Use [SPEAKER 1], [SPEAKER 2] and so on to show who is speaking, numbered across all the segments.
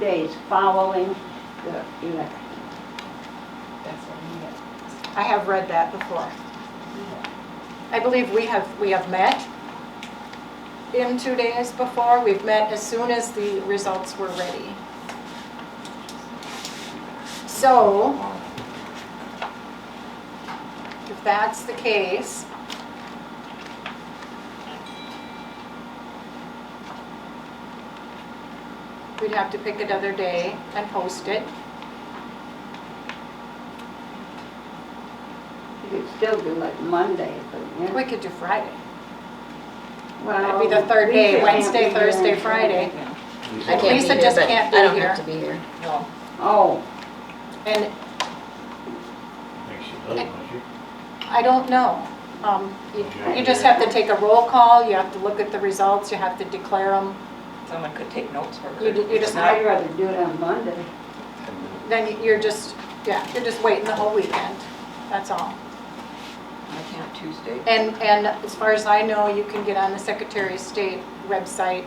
[SPEAKER 1] days following the election.
[SPEAKER 2] That's what I need.
[SPEAKER 3] I have read that before. I believe we have, we have met in two days before. We've met as soon as the results were ready. So, if that's the case, we'd have to pick another day and post it.
[SPEAKER 1] You could still do it Monday, but,
[SPEAKER 3] We
[SPEAKER 1] yeah.
[SPEAKER 3] could do Friday.
[SPEAKER 1] Well,
[SPEAKER 3] It'd be the third day,
[SPEAKER 1] Lisa can't
[SPEAKER 3] Wednesday,
[SPEAKER 1] be here
[SPEAKER 3] Thursday,
[SPEAKER 1] until-
[SPEAKER 3] Friday.
[SPEAKER 4] I can't
[SPEAKER 3] Lisa
[SPEAKER 4] be here,
[SPEAKER 3] just
[SPEAKER 4] but
[SPEAKER 3] can't be
[SPEAKER 4] I don't
[SPEAKER 3] here.
[SPEAKER 4] have to be here.
[SPEAKER 3] No.
[SPEAKER 1] Oh,
[SPEAKER 3] And
[SPEAKER 5] Think she does, don't she?
[SPEAKER 3] I don't know. Um, You you just have to take a roll call, you have to look at the results, you have to declare them.
[SPEAKER 2] Someone could take notes for her.
[SPEAKER 3] You d- you just-
[SPEAKER 2] Not-
[SPEAKER 1] I'd rather do it on Monday.
[SPEAKER 3] Then you're just, yeah, you're just waiting the whole weekend, that's all.
[SPEAKER 2] I can't Tuesday.
[SPEAKER 3] And, and as far as I know, you can get on the Secretary of State website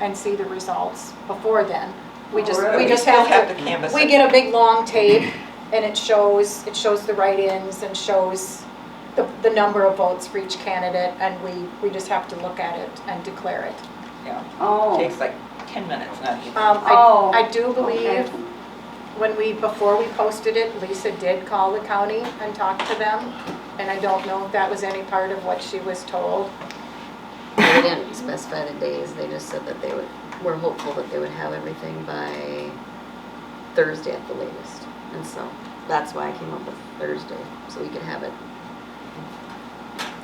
[SPEAKER 3] and see the results before then. We just, we
[SPEAKER 1] Alright.
[SPEAKER 3] just
[SPEAKER 2] still
[SPEAKER 3] have to.
[SPEAKER 2] to canvass.
[SPEAKER 3] We
[SPEAKER 2] it.
[SPEAKER 3] get a big long tape and it shows, it shows the write-ins and shows the, the number of votes for each candidate and we, we just have to look at it and declare it.
[SPEAKER 2] Yeah,
[SPEAKER 1] Oh.
[SPEAKER 2] takes like 10 minutes, not even.
[SPEAKER 3] Um,
[SPEAKER 1] Oh,
[SPEAKER 3] I, I do
[SPEAKER 1] okay.
[SPEAKER 3] believe when we, before we posted it, Lisa did call the county and talk to them. And I don't know if that was any part of what she was told.
[SPEAKER 4] They didn't specify the days, they just said that they would, were hopeful that they would have everything by Thursday at the latest. And so, that's why I came up with Thursday, so we could have it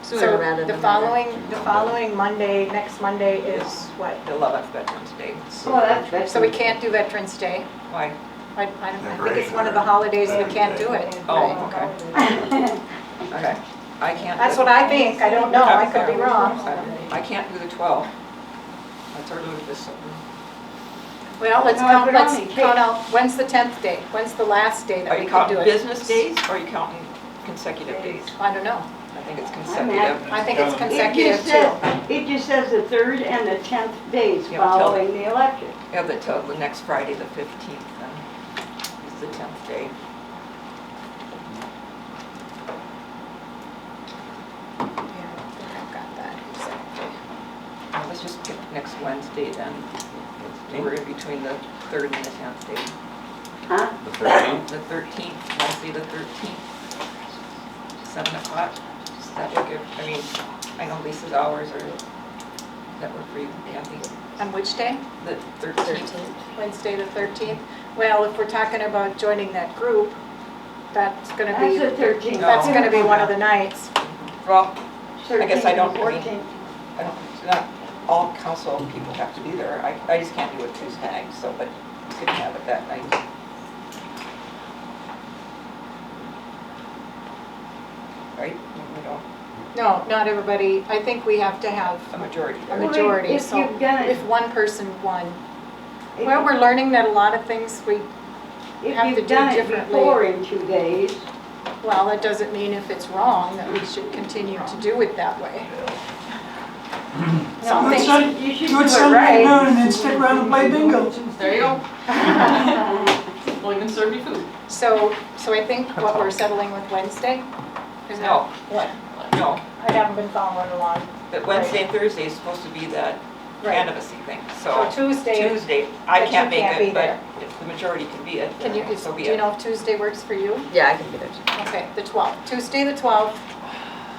[SPEAKER 4] sooner rather than
[SPEAKER 3] So
[SPEAKER 4] later.
[SPEAKER 3] the following, the following Monday, next Monday is what?
[SPEAKER 2] The 11th Veterans Day.
[SPEAKER 1] Well, that's good.
[SPEAKER 3] So we can't do Veterans Day.
[SPEAKER 2] Why?
[SPEAKER 3] I, I don't- I think it's one of the holidays we can't do it.
[SPEAKER 2] Oh, okay, okay. I can't.
[SPEAKER 3] That's
[SPEAKER 2] do-
[SPEAKER 3] what I think, I don't know, I could be wrong.
[SPEAKER 2] I can't do the 12th. That's our Lucas.
[SPEAKER 3] Well, let's
[SPEAKER 1] No,
[SPEAKER 3] count,
[SPEAKER 1] but
[SPEAKER 3] let's
[SPEAKER 1] only-
[SPEAKER 3] count out, when's the 10th day? When's the last day
[SPEAKER 2] Are
[SPEAKER 3] that
[SPEAKER 2] you
[SPEAKER 3] we can do
[SPEAKER 2] counting
[SPEAKER 3] it?
[SPEAKER 2] business days or are you counting consecutive days?
[SPEAKER 3] I don't know,
[SPEAKER 2] I think it's
[SPEAKER 1] happy.
[SPEAKER 2] consecutive.
[SPEAKER 3] I think it's
[SPEAKER 1] It
[SPEAKER 3] consecutive
[SPEAKER 1] just
[SPEAKER 3] too.
[SPEAKER 1] says, it just says the third and the tenth days
[SPEAKER 2] Yeah, but tell-
[SPEAKER 1] following the election.
[SPEAKER 2] Yeah, but till the next Friday, the 15th, then, is the 10th day.
[SPEAKER 3] Yeah, I think I've got that exactly.
[SPEAKER 2] Well, Let's just pick next Wednesday then. We're in between the 3rd and the 10th day.
[SPEAKER 1] Huh?
[SPEAKER 6] The thirteenth?
[SPEAKER 2] The 13th, Wednesday the 13th, 7 o'clock. Does that work? if- I mean, I know Lisa's hours are, that work for you, Kathy?
[SPEAKER 3] On which day?
[SPEAKER 2] The 13th.
[SPEAKER 4] Thirteenth.
[SPEAKER 3] Wednesday the 13th? Well, if we're talking about joining that group, that's Oh. gonna
[SPEAKER 1] That's
[SPEAKER 3] be,
[SPEAKER 1] the thirteenth.
[SPEAKER 3] that's gonna be one of the nights.
[SPEAKER 2] Well,
[SPEAKER 1] I
[SPEAKER 2] guess I don't- I mean-
[SPEAKER 1] Fourteenth.
[SPEAKER 2] I don't, it's not all council people have to be there. I, I just can't do it Tuesday night, so, but you could have it that night. Right? We don't,
[SPEAKER 3] No, not everybody, I think we have to have
[SPEAKER 2] a majority
[SPEAKER 3] a
[SPEAKER 2] there.
[SPEAKER 1] mean,
[SPEAKER 3] majority,
[SPEAKER 1] if
[SPEAKER 3] so
[SPEAKER 1] you've done it-
[SPEAKER 3] if one person won. Well, we're learning that a lot of things we, have
[SPEAKER 1] If
[SPEAKER 3] to
[SPEAKER 1] you've
[SPEAKER 3] do
[SPEAKER 1] done it
[SPEAKER 3] differently.
[SPEAKER 1] before in two days,
[SPEAKER 3] well, it doesn't mean if it's wrong that we should continue to do it that way. Some
[SPEAKER 7] Do it
[SPEAKER 3] things-
[SPEAKER 7] Sun-
[SPEAKER 1] you should do
[SPEAKER 7] do it
[SPEAKER 1] it
[SPEAKER 7] Sunday
[SPEAKER 1] right.
[SPEAKER 7] noon and then stick around and play bingo.
[SPEAKER 8] There you go. We'll even serve you food.
[SPEAKER 3] So, so I think what we're settling with Wednesday? is that-
[SPEAKER 2] No.
[SPEAKER 3] What?
[SPEAKER 2] No,
[SPEAKER 3] I haven't been following along.
[SPEAKER 2] but Wednesday and Thursday is supposed to be that
[SPEAKER 3] Right.
[SPEAKER 2] candidacy thing,
[SPEAKER 3] So
[SPEAKER 2] so.
[SPEAKER 3] Tuesday,
[SPEAKER 2] Tuesday, I
[SPEAKER 3] but you
[SPEAKER 2] can't make
[SPEAKER 3] can't be
[SPEAKER 2] it,
[SPEAKER 3] there.
[SPEAKER 2] but if the majority can be it,
[SPEAKER 3] can you,
[SPEAKER 2] then
[SPEAKER 3] is-
[SPEAKER 2] so
[SPEAKER 3] do
[SPEAKER 2] be
[SPEAKER 3] you
[SPEAKER 2] it.
[SPEAKER 3] know if Tuesday works for you?
[SPEAKER 4] Yeah, I can be there too.
[SPEAKER 3] Okay, the 12th, Tuesday the 12th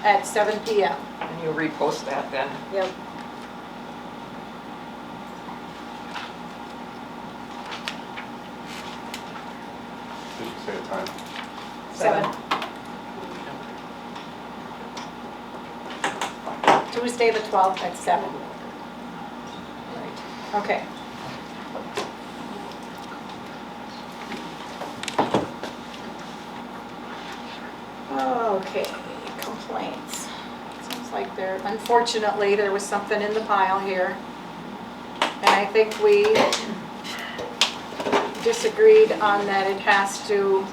[SPEAKER 3] at seven PM.
[SPEAKER 2] And you repost that then.
[SPEAKER 4] Yep.
[SPEAKER 6] Did you say a time?
[SPEAKER 3] Seven. Tuesday the 12th at seven.
[SPEAKER 2] Right.
[SPEAKER 3] Okay. Okay, complaints. Sounds like there, unfortunately, there was something in the pile here. And I think we disagreed on that it has to,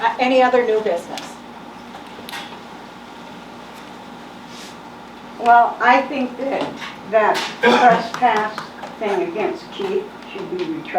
[SPEAKER 3] uh, any other new business?
[SPEAKER 1] Well, I think that, that trespass thing against Keith should be retracted.